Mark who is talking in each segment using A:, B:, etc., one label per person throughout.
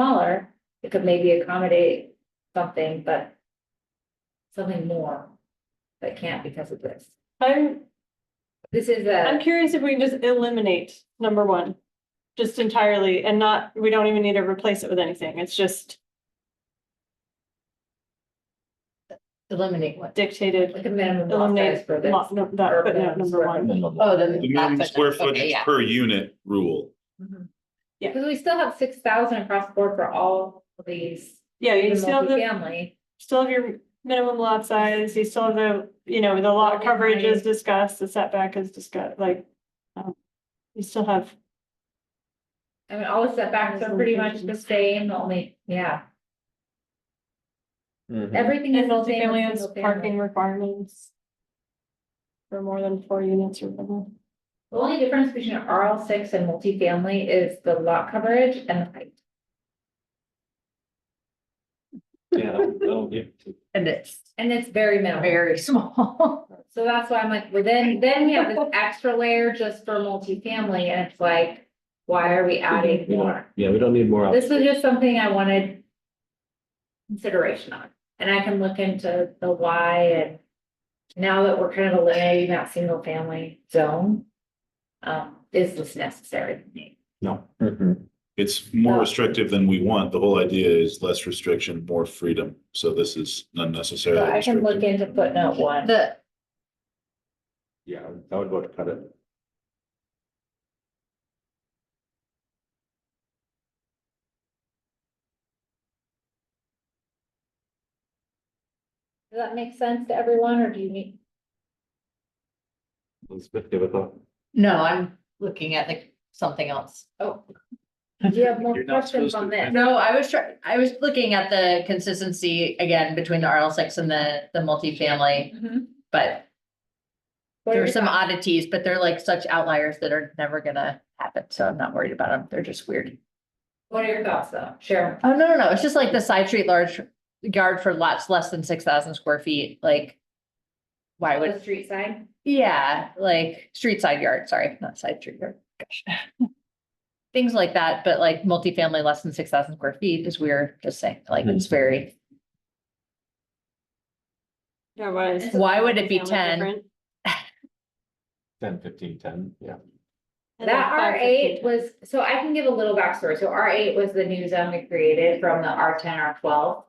A: smaller, it could maybe accommodate something, but something more, but can't because of this.
B: I'm,
A: This is
B: I'm
A: a,
B: curious if we can just eliminate number one. Just entirely and not, we don't even need to replace it with anything. It's just
C: Eliminate what?
B: dictated.
A: like a minimum lot size
B: Eliminate
A: for this.
B: lot, no, that
A: Urban
B: footnote number one.
C: Oh, the.
D: The minimum square
C: okay,
D: footage
C: yeah.
D: per unit rule.
A: Mhm.
B: Yeah.
A: Because we still have six thousand across the board for all of these,
B: Yeah, you
A: even
B: still have the,
A: multifamily.
B: still have your minimum lot size, you still have the, you know, the lot coverage is discussed, the setback is discussed, like. um, You still have,
A: I mean, all the setbacks are pretty much the same, the only, yeah,
E: Mm-hmm.
A: everything is
B: and
A: the same. as
B: multifamily has
A: single
B: parking
A: family.
B: requirements. For more than four units or more.
A: The only difference between RL six and multifamily is the lot coverage and the height.
E: Yeah, that'll- that'll get to-
C: And it's
A: And it's very minimal.
C: very small.
A: So that's why I'm like, well, then, then we have this extra layer just for multifamily and it's like, why are we adding
E: we don't-
A: more?
E: Yeah, we don't need more.
A: This was just something I wanted consideration on, and I can look into the why and now that we're kind of eliminating that single family zone, um, is this necessary?
E: No.
D: It's more
A: Yeah.
D: restrictive than we want. The whole idea is less restriction, more freedom. So this is
A: So
D: unnecessarily
A: I can look
D: restrictive.
A: into footnote one.
C: The,
E: Yeah, I would vote to cut it.
A: Does that make sense to everyone or do you need?
E: Elizabeth, give it a thought.
C: no, I'm looking at like something else.
A: oh, Do you have more
E: You're not
A: questions on
E: supposed to.
A: this?
C: No, I was trying, I was looking at the consistency again between the RL six and the, the multifamily,
A: Mhm.
C: but
A: What
C: there
A: are
C: are
A: your
C: some oddities, but they're like such outliers that are never gonna happen. So I'm not worried about them. They're just weird.
A: What are your thoughts though? Share.
C: Oh, no, no, no. It's just like the side street large yard for lots less than six thousand square feet, like. Why would?
A: The street side?
C: Yeah, like street side yard, sorry, not side street yard, gosh. Things like that, but like multifamily less than six thousand square feet is weird, just saying, like
D: Hmm.
C: it's very,
B: Yeah, why is-
C: why would it be
B: Multifamily
C: ten?
B: different?
E: Ten, fifteen, ten, yeah.
B: And then
A: That
B: five,
A: R
B: fifteen,
A: eight was, so I can give a little backstory. So R eight was the new zone we created from the R ten, R twelve.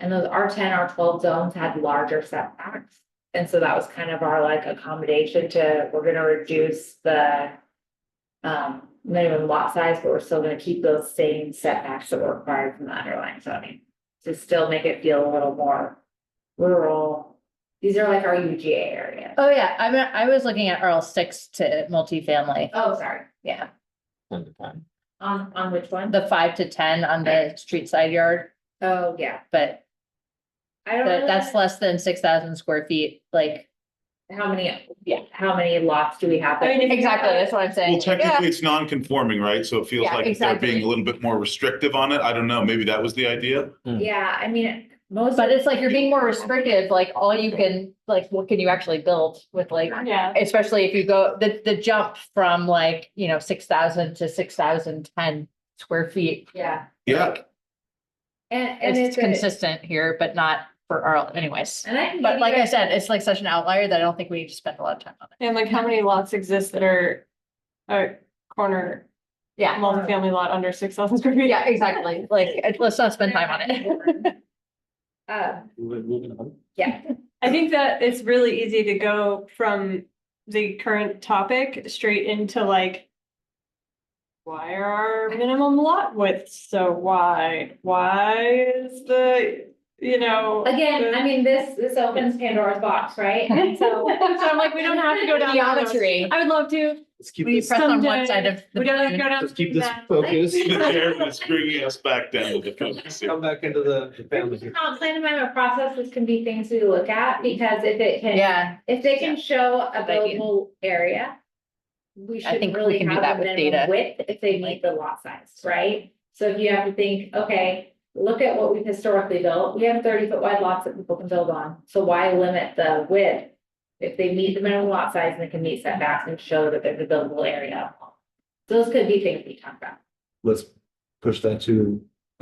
A: And those R ten, R twelve zones had larger setbacks. And so that was kind of our like accommodation to, we're gonna reduce the um, minimum lot size, but we're still gonna keep those same setbacks that were required from the underlying zoning. To still make it feel a little more rural. These are like our UGA areas.
C: Oh, yeah, I mean, I was looking at RL six to multifamily,
A: Oh, sorry, yeah,
E: Ten to ten.
A: on, on which one?
C: the five to ten on the street side yard,
A: Oh, yeah,
C: but
A: I don't
C: that,
A: know
C: that's less than six thousand square feet, like.
A: how many,
C: Yeah.
A: how many lots do we have?
B: I mean, if you- Exactly,
C: that's what I'm
D: Well,
C: saying.
D: technically, it's non-conforming, right? So it feels
C: Yeah,
D: like they're
C: exactly.
D: being a little bit more restrictive on it. I don't know. Maybe that was the idea.
A: Yeah, I mean, most.
C: But it's like you're being more restrictive, like all you can, like, what can you actually build with like
B: Yeah,
C: especially if you go, the, the jump from like, you know, six thousand to six thousand ten square feet.
A: Yeah,
D: Yeah,
A: and, and
C: It's
A: it's, a-
C: consistent here, but not for Arl anyways.
A: and I can. give
C: But
A: you
C: like I
A: guys-
C: said, it's like such an outlier that I don't think we need to spend a lot of time on it.
B: and like how many lots exist that are, are corner
C: Yeah,
B: multifamily lot under six thousand square feet?
C: yeah, exactly. Like, it- let's not spend time on it.
A: Uh,
E: Moving on.
A: yeah,
B: I think that it's really easy to go from the current topic straight into like. Why are our minimum lot widths so wide? Why is the, you know?
A: again, I mean, this, this opens Pandora's box, right? And so.
B: So I'm like, we don't have to go down. that road.
C: Geometry.
B: I would love to.
E: Let's keep
C: We
E: this,
C: press on
B: Someday.
C: one side of. the
B: We don't have to
C: balloon.
B: go down.
E: let's keep this
B: that.
E: focus.
D: it's bringing us back down to the focus. here.
E: Come back into the family. here.
A: Comp plan amendment process, this can be things we look at, because if it can.
C: Yeah,
A: If they can show a
C: Good idea.
A: buildable area. We
C: I
A: should
C: think we
A: really
C: can do
A: have
C: that
A: a
C: with
A: minimum
C: data.
A: width if they meet the lot size, right? So if you have to think, okay, look at what we've historically built, we have thirty foot wide lots that people can build on, so why limit the width? If they meet the minimum lot size and they can meet setbacks and show that there's a buildable area. Those could be things we talk about.
E: Let's push that to